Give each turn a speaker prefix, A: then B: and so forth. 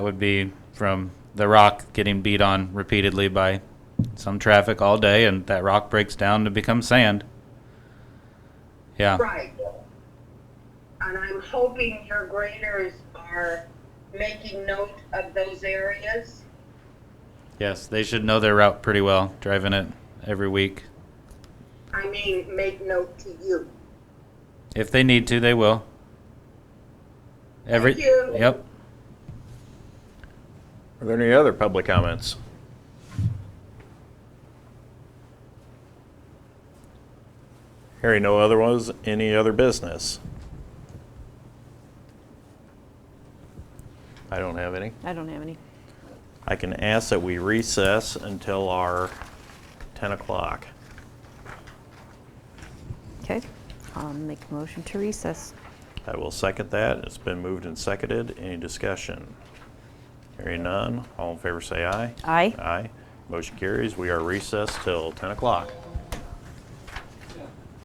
A: would be from the rock getting beat on repeatedly by some traffic all day, and that rock breaks down to become sand. Yeah.
B: Right. And I'm hoping your graders are making note of those areas.
A: Yes, they should know their route pretty well, driving it every week.
B: I mean, make note to you.
A: If they need to, they will. Every
B: Thank you.
A: Yep.
C: Are there any other public comments? Hearing no other ones, any other business? I don't have any.
D: I don't have any.
C: I can ask that we recess until our 10 o'clock.
D: Okay. I'll make a motion to recess.
C: I will second that. It's been moved and seconded. Any discussion? Hearing none, all in favor say aye.
D: Aye.
C: Aye. Motion carries. We are recessed till 10 o'clock.